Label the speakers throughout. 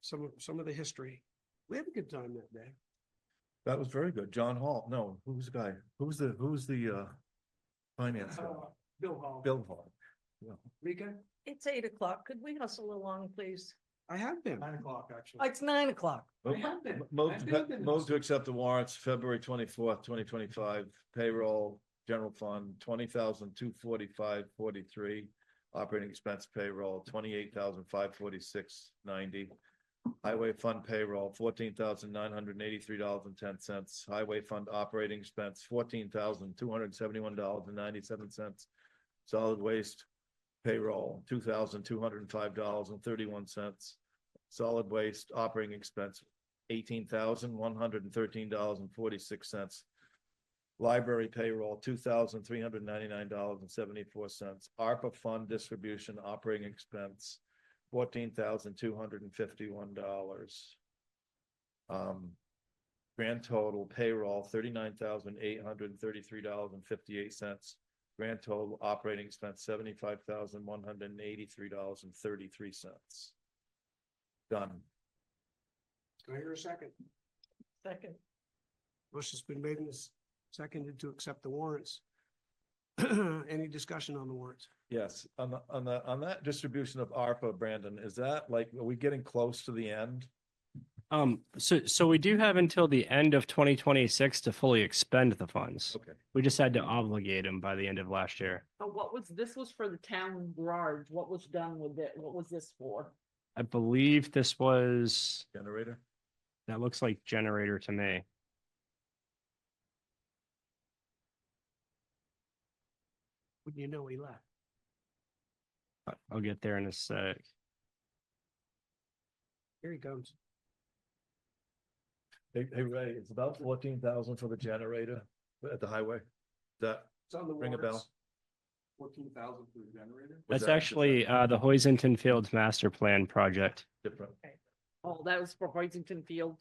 Speaker 1: some of, some of the history. We had a good time that day.
Speaker 2: That was very good. John Hall, no, who was the guy? Who was the, who was the, uh, finance guy?
Speaker 1: Uh, Bill Hall.
Speaker 2: Bill Hall.
Speaker 1: Rika,
Speaker 3: It's eight o'clock. Could we hustle along, please?
Speaker 1: I have been.
Speaker 4: Nine o'clock, actually.
Speaker 3: It's nine o'clock.
Speaker 1: I have been.
Speaker 2: Move,
Speaker 1: I've
Speaker 2: to
Speaker 1: been
Speaker 2: pe-
Speaker 1: to this.
Speaker 2: move to accept the warrants, February twenty-fourth, twenty twenty-five, payroll, general fund, twenty thousand, two forty-five, forty-three. Operating expense payroll, twenty-eight thousand, five forty-six, ninety. Highway fund payroll, fourteen thousand, nine hundred and eighty-three dollars and ten cents. Highway fund operating expense, fourteen thousand, two hundred and seventy-one dollars and ninety-seven cents. Solid waste payroll, two thousand, two hundred and five dollars and thirty-one cents. Solid waste operating expense, eighteen thousand, one hundred and thirteen dollars and forty-six cents. Library payroll, two thousand, three hundred and ninety-nine dollars and seventy-four cents. ARPA fund distribution operating expense, fourteen thousand, two hundred and fifty-one dollars. Um, grand total payroll, thirty-nine thousand, eight hundred and thirty-three dollars and fifty-eight cents. Grand total operating expense, seventy-five thousand, one hundred and eighty-three dollars and thirty-three cents. Done.
Speaker 1: Can I hear a second?
Speaker 3: Second.
Speaker 1: Motion's been made and s- seconded to accept the warrants. Any discussion on the warrants?
Speaker 2: Yes, on the, on the, on that distribution of ARPA, Brandon, is that like, are we getting close to the end?
Speaker 5: Um, so, so we do have until the end of twenty twenty-six to fully expend the funds.
Speaker 2: Okay.
Speaker 5: We just had to obligate them by the end of last year.
Speaker 6: Oh, what was, this was for the town garage. What was done with it? What was this for?
Speaker 5: I believe this was,
Speaker 2: Generator?
Speaker 5: that looks like generator to me.
Speaker 1: Wouldn't you know he left?
Speaker 5: I- I'll get there in a sec.
Speaker 1: Here he comes.
Speaker 2: Hey, hey, Ray, it's about fourteen thousand for the generator at the highway. That,
Speaker 4: It's on the
Speaker 2: Ring a bell.
Speaker 4: warrants. Fourteen thousand for the generator.
Speaker 2: Was
Speaker 5: That's
Speaker 2: that-
Speaker 5: actually, uh, the Hoyzington Fields Master Plan Project.
Speaker 2: different.
Speaker 6: Oh, that was for Hoytington Field.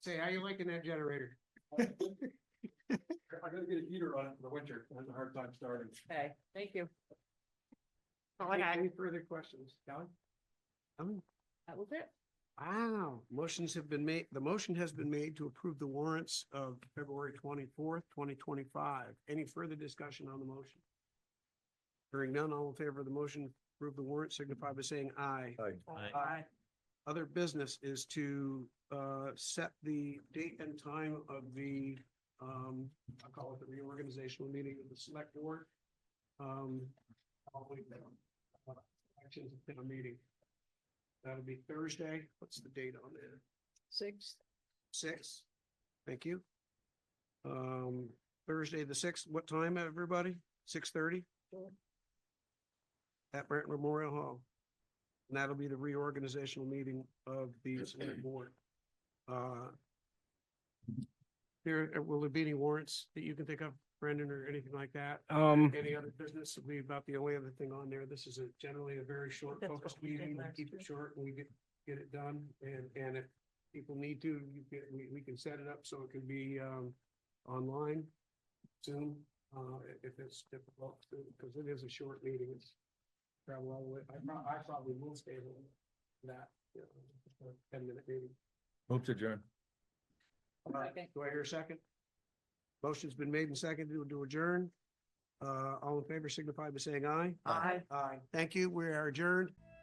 Speaker 1: Say, how you liking that generator?
Speaker 4: I gotta get a heater on it for the winter. I have a hard time starting.
Speaker 6: Okay, thank you. Oh,
Speaker 1: Any-
Speaker 6: okay,
Speaker 1: Any further questions? Kelly? Kelly?
Speaker 6: that was it.
Speaker 1: Wow, motions have been made, the motion has been made to approve the warrants of February twenty-fourth, twenty twenty-five. Any further discussion on the motion? Hearing none, all in favor of the motion, to approve the warrant, signify by saying aye.
Speaker 2: Aye.
Speaker 1: Aye. Other business is to uh set the date and time of the um, I call it the reorganizational meeting of the select board. Um, I'll wait there. Uh, Actions at town meeting. That'll be Thursday. What's the date on there?
Speaker 3: Six.
Speaker 1: Six? Thank you. Um, Thursday, the sixth, what time, everybody? Six thirty?
Speaker 3: Sure.
Speaker 1: At Brent Memorial Hall. And that'll be the reorganizational meeting of the select board. Uh, There, uh, will there be any warrants that you can think of, Brendan, or anything like that?
Speaker 5: Um,
Speaker 1: Any other business? It'll be about the only other thing on there. This is a generally a very short
Speaker 3: That's
Speaker 1: focused
Speaker 3: what we did
Speaker 1: meeting. We
Speaker 3: last
Speaker 1: keep it
Speaker 3: year.
Speaker 1: short and we get, get it done. And, and if people need to, you can, we, we can set it up so it can be, um, online soon, uh, i- if it's difficult, because it is a short meeting. It's travel all the way. I, prob- I probably will stay with that, you know, just a ten minute meeting.
Speaker 2: Move to adjourn.
Speaker 1: Uh,
Speaker 6: Second.
Speaker 1: Do I hear a second? Motion's been made and seconded to adjourn. Uh, all in favor signify by saying aye.
Speaker 2: Aye.
Speaker 1: Aye. Thank you. We are adjourned.